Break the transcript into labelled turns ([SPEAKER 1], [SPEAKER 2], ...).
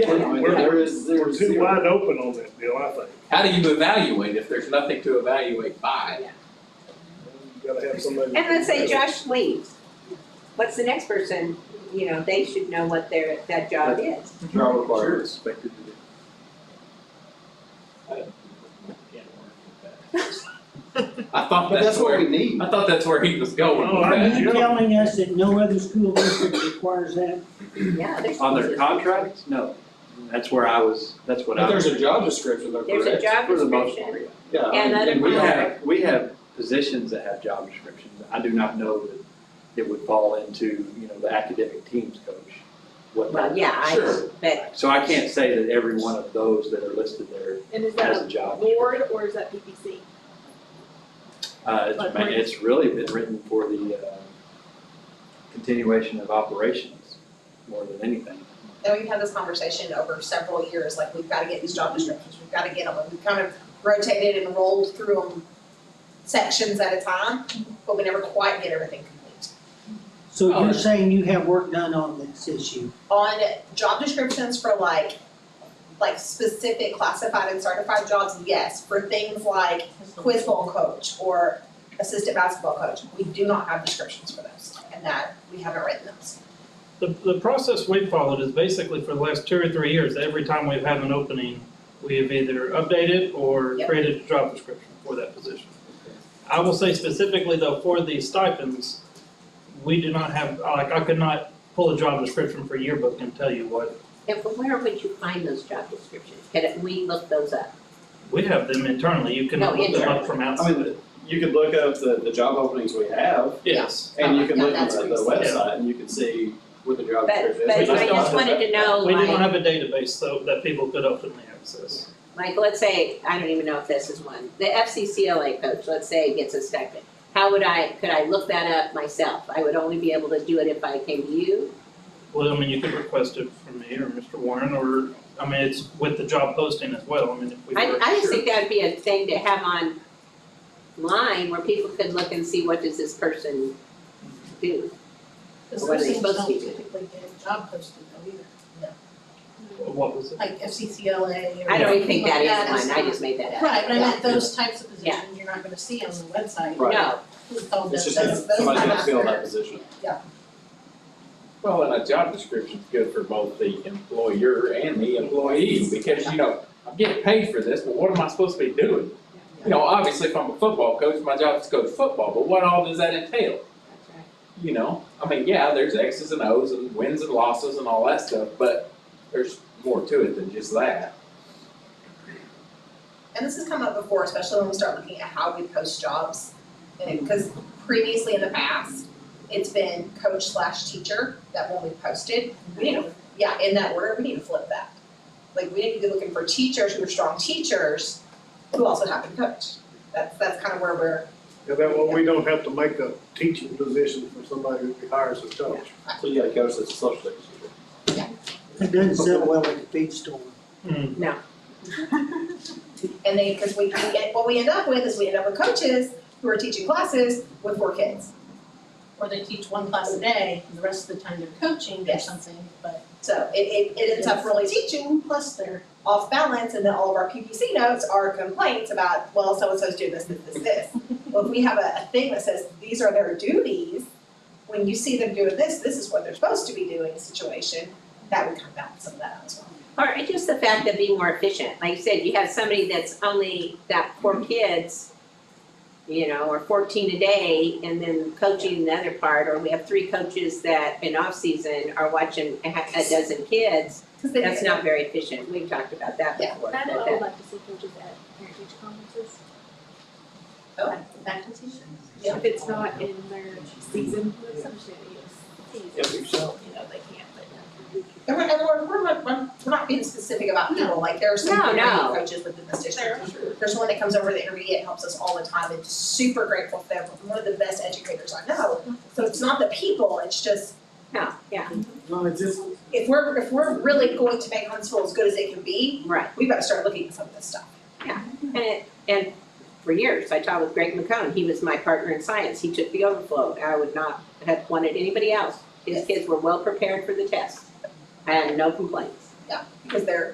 [SPEAKER 1] We're-
[SPEAKER 2] I mean,
[SPEAKER 1] we're-
[SPEAKER 2] there is,
[SPEAKER 1] We're
[SPEAKER 2] there's
[SPEAKER 1] too
[SPEAKER 2] zero.
[SPEAKER 1] wide open on that deal, I think.
[SPEAKER 3] How do you evaluate if there's nothing to evaluate by?
[SPEAKER 1] You gotta have somebody.
[SPEAKER 4] And let's say Josh leaves, what's the next person, you know, they should know what their, that job is.
[SPEAKER 2] Trial required. Expected to do.
[SPEAKER 3] I
[SPEAKER 2] But
[SPEAKER 3] thought that's
[SPEAKER 2] that's what we
[SPEAKER 3] where,
[SPEAKER 2] need.
[SPEAKER 3] I thought that's where he was going
[SPEAKER 1] Oh,
[SPEAKER 3] with
[SPEAKER 1] I
[SPEAKER 5] Are
[SPEAKER 3] that.
[SPEAKER 5] you telling us that no other school district requires that?
[SPEAKER 4] Yeah, there's.
[SPEAKER 6] On their contract? No. That's where I was, that's what I.
[SPEAKER 2] But there's a job description, though,
[SPEAKER 4] There's a
[SPEAKER 2] correct?
[SPEAKER 4] job
[SPEAKER 6] For the most
[SPEAKER 4] description.
[SPEAKER 6] part,
[SPEAKER 2] Yeah, I
[SPEAKER 4] And
[SPEAKER 2] mean,
[SPEAKER 4] other
[SPEAKER 6] And we
[SPEAKER 4] Right.
[SPEAKER 6] have, we have positions that have job descriptions. I do not know that it would fall into, you know, the academic teams coach. what
[SPEAKER 4] Well,
[SPEAKER 6] that-
[SPEAKER 4] yeah, I,
[SPEAKER 3] Sure.
[SPEAKER 4] but
[SPEAKER 6] So I can't say that every one of those that are listed there
[SPEAKER 7] And is
[SPEAKER 6] has
[SPEAKER 7] that
[SPEAKER 6] a job.
[SPEAKER 7] a board or is that PPC?
[SPEAKER 6] Uh, it's, ma- it's really been written for the, uh, continuation of operations more than anything.
[SPEAKER 8] And we've had this conversation over several years, like, we've gotta get these job descriptions, we've gotta get them, and we've kind of rotated and rolled through them sections at a time, but we never quite get everything complete.
[SPEAKER 5] So
[SPEAKER 3] Oh.
[SPEAKER 5] you're saying you have work done on this issue?
[SPEAKER 8] On job descriptions for like, like specific classified and certified jobs, yes, for things like quiz bowl coach or assistant basketball coach, we do not have descriptions for those, and that, we haven't written those.
[SPEAKER 9] The, the process we've followed is basically for the last two or three years, every time we've had an opening, we have either updated or
[SPEAKER 8] Yep.
[SPEAKER 9] created a job description for that position. I will say specifically though, for the stipends, we do not have, like, I could not pull a job description for yearbook and tell you what.
[SPEAKER 4] and from where would you find those job descriptions? Could we look those up?
[SPEAKER 9] We have them internally, you
[SPEAKER 4] No,
[SPEAKER 9] cannot look them up
[SPEAKER 4] internally.
[SPEAKER 9] from
[SPEAKER 2] I
[SPEAKER 9] outside.
[SPEAKER 2] mean, you could look up the, the job openings we have,
[SPEAKER 9] Yes,
[SPEAKER 2] and you can
[SPEAKER 4] Oh,
[SPEAKER 8] Yeah,
[SPEAKER 2] look at
[SPEAKER 8] that's
[SPEAKER 2] the,
[SPEAKER 8] what
[SPEAKER 2] the
[SPEAKER 8] you
[SPEAKER 9] said.
[SPEAKER 2] website, and you can see what the job
[SPEAKER 4] But,
[SPEAKER 2] description is.
[SPEAKER 4] but
[SPEAKER 2] We
[SPEAKER 4] I
[SPEAKER 9] don't
[SPEAKER 4] just
[SPEAKER 2] have
[SPEAKER 4] wanted
[SPEAKER 2] that.
[SPEAKER 4] to know,
[SPEAKER 9] we do not
[SPEAKER 4] like,
[SPEAKER 9] have a database though that people could openly access.
[SPEAKER 4] like, let's say, I don't even know if this is one, the FCCLA coach, let's say, gets a stipend. How would I, could I look that up myself? I would only be able to do it if I came to you?
[SPEAKER 9] Well, I mean, you could request it from me or Mr. Warren, or, I mean, it's with the job posting as well, I mean, if we
[SPEAKER 4] I,
[SPEAKER 9] were.
[SPEAKER 4] I just
[SPEAKER 9] sure.
[SPEAKER 4] think that'd be a thing to have online where people could look and see what does this person do?
[SPEAKER 7] Because
[SPEAKER 4] What are they
[SPEAKER 7] those things
[SPEAKER 4] supposed to
[SPEAKER 7] don't
[SPEAKER 4] be doing?
[SPEAKER 7] typically get job posted though either,
[SPEAKER 9] What was it?
[SPEAKER 7] like FCCLA or.
[SPEAKER 4] I don't even
[SPEAKER 7] anything
[SPEAKER 4] think that
[SPEAKER 7] like
[SPEAKER 4] is one, I
[SPEAKER 7] not-
[SPEAKER 4] just made that up.
[SPEAKER 7] Right, but I
[SPEAKER 4] Yeah.
[SPEAKER 7] meant those types of
[SPEAKER 4] Yeah.
[SPEAKER 7] positions, you're not gonna see on the website.
[SPEAKER 2] Right.
[SPEAKER 4] No,
[SPEAKER 7] It's all
[SPEAKER 2] It's
[SPEAKER 7] those,
[SPEAKER 2] just
[SPEAKER 7] those.
[SPEAKER 2] that somebody's gonna
[SPEAKER 7] those-
[SPEAKER 2] fill that position.
[SPEAKER 3] Well, and a job description's good for both the employer and the employee, because, you know, I'm getting paid for this, but what am I supposed to be doing? You know, obviously, if I'm a football coach, my job is to coach football, but what all does that entail? You know, I mean, yeah, there's X's and O's and wins and losses and all that stuff, but there's more to it than just that.
[SPEAKER 8] and this has come up before, especially when we start looking at how we post jobs. Because previously in the past, it's been coach slash teacher that when we posted, we need to, yeah, in that order, we need to flip that. Like, we need to be looking for teachers who are strong teachers who also happen to coach. That's, that's kind of where we're,
[SPEAKER 1] And that way we don't have to make a teaching position for somebody who hires a coach.
[SPEAKER 2] So you gotta coach that's a social studies teacher.
[SPEAKER 5] It doesn't sit well at the feed store.
[SPEAKER 9] Hmm.
[SPEAKER 8] and then, because we, we get, what we end up with is we end up with coaches who are teaching classes with four kids.
[SPEAKER 7] Or they teach one class a day, and the rest of the time they're coaching or
[SPEAKER 8] Yes.
[SPEAKER 7] something, but
[SPEAKER 8] So it, it, it ends up really teaching
[SPEAKER 7] plus they're,
[SPEAKER 8] off balance and then all of our PPC notes are complaints about, well, so-and-so's doing this, this, this, this. Well, if we have a, a thing that says, these are their duties, when you see them doing this, this is what they're supposed to be doing situation, that would come balance some of that out as well.
[SPEAKER 4] Or just the fact of being more efficient, like you said, you have somebody that's only got four kids, you know, or fourteen a day, and then coaching the other part, or we have three coaches that in off-season are watching a ha- a dozen kids,
[SPEAKER 8] 'Cause they-
[SPEAKER 4] that's not very efficient, we've talked about that
[SPEAKER 8] Yeah.
[SPEAKER 4] before.
[SPEAKER 10] I
[SPEAKER 4] that-
[SPEAKER 10] would
[SPEAKER 4] that-
[SPEAKER 10] like to see coaches at parent teacher conferences.
[SPEAKER 8] Oh.
[SPEAKER 10] Back- Back to teachers.
[SPEAKER 8] Yeah.
[SPEAKER 10] If it's not in their season, with some shit, yes.
[SPEAKER 3] Yeah, we shall.
[SPEAKER 10] You know, they can't, but.
[SPEAKER 8] And we're, and we're, we're not, we're we're not being specific about people, like there are some
[SPEAKER 4] No,
[SPEAKER 8] great
[SPEAKER 4] no.
[SPEAKER 8] coaches within this district. There's one that comes over the intermediate and helps us all the time, and super grateful for them, one of the best educators I know. So it's not the people, it's just
[SPEAKER 4] No, yeah,
[SPEAKER 2] No, it's just.
[SPEAKER 8] if we're, if we're really going to make Huntsville as good as it can be,
[SPEAKER 4] right,
[SPEAKER 8] we better start looking at some of this stuff.
[SPEAKER 4] and, it- and for years, I taught with Greg McCone, he was my partner in science, he took the overflow, I would not have wanted anybody else. His kids were well prepared for the test, I had no complaints.
[SPEAKER 8] yeah, because they're